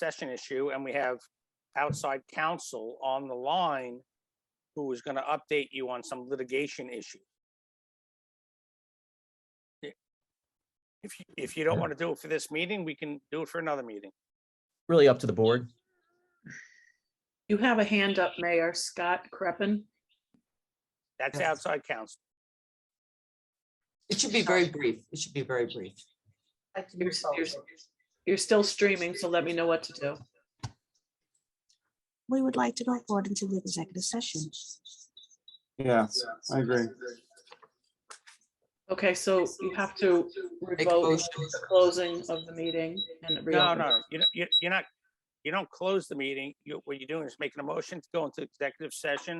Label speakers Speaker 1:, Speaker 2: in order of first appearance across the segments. Speaker 1: session issue and we have outside counsel on the line who is going to update you on some litigation issue. If, you- if you don't want to do it for this meeting, we can do it for another meeting.
Speaker 2: really up to the board.
Speaker 3: You have a hand up, Mayor Scott Creppen.
Speaker 1: That's outside counsel.
Speaker 4: It should be very brief. It should be very brief.
Speaker 3: You're- you're- You're still streaming, so let me know what to do.
Speaker 5: We would like to go forward into the executive session.
Speaker 6: Yes, I agree.
Speaker 3: Okay, so you have to
Speaker 4: Make a
Speaker 3: revoke
Speaker 4: motion.
Speaker 3: the closing of the meeting and
Speaker 1: No,
Speaker 3: reopen.
Speaker 1: no, you, don't- you, you're not, you don't close the meeting. You, what you're doing is making a motion to go into executive session.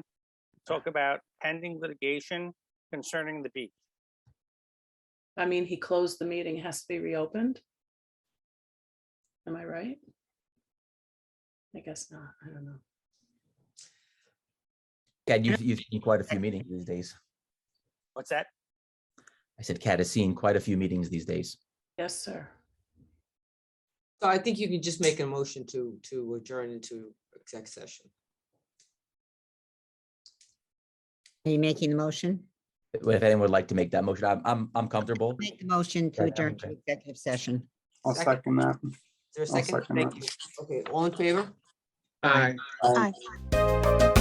Speaker 1: Talk about pending litigation concerning the beach.
Speaker 3: I mean, he closed the meeting, it has to be reopened. Am I right? I guess not, I don't know.
Speaker 2: Cat, you've, you've seen quite a few meetings these days.
Speaker 1: What's that?
Speaker 2: I said Cat has seen quite a few meetings these days.
Speaker 3: Yes, sir.
Speaker 4: So I think you can just make a motion to, to adjourn into exec session.
Speaker 7: Are you making the motion?
Speaker 2: If anyone would like to make that motion, I'm, I'm, I'm comfortable.
Speaker 7: Make the motion to
Speaker 2: Right,
Speaker 7: adjourn to
Speaker 2: okay.
Speaker 7: executive session.
Speaker 6: I'll second that.
Speaker 4: Is there a
Speaker 6: I'll
Speaker 4: second?
Speaker 6: second
Speaker 4: Thank
Speaker 6: that.
Speaker 4: you. Okay, all in favor?
Speaker 6: Aye.
Speaker 5: Aye.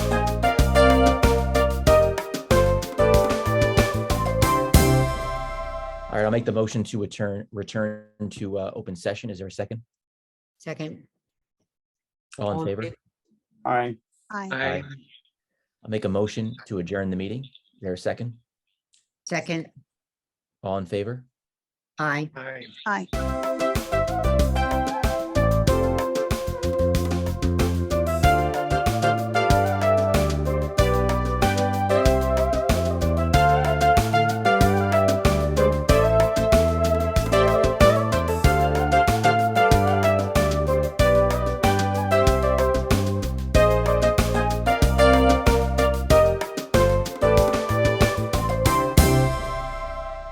Speaker 2: All right, I'll make the motion to return, return to uh, open session. Is there a second?
Speaker 7: Second,
Speaker 2: All in favor?
Speaker 6: Aye.
Speaker 5: Aye.
Speaker 2: Aye. I'll make a motion to adjourn the meeting. Is there a second?
Speaker 7: second,
Speaker 2: All in favor?
Speaker 7: aye.
Speaker 5: Aye.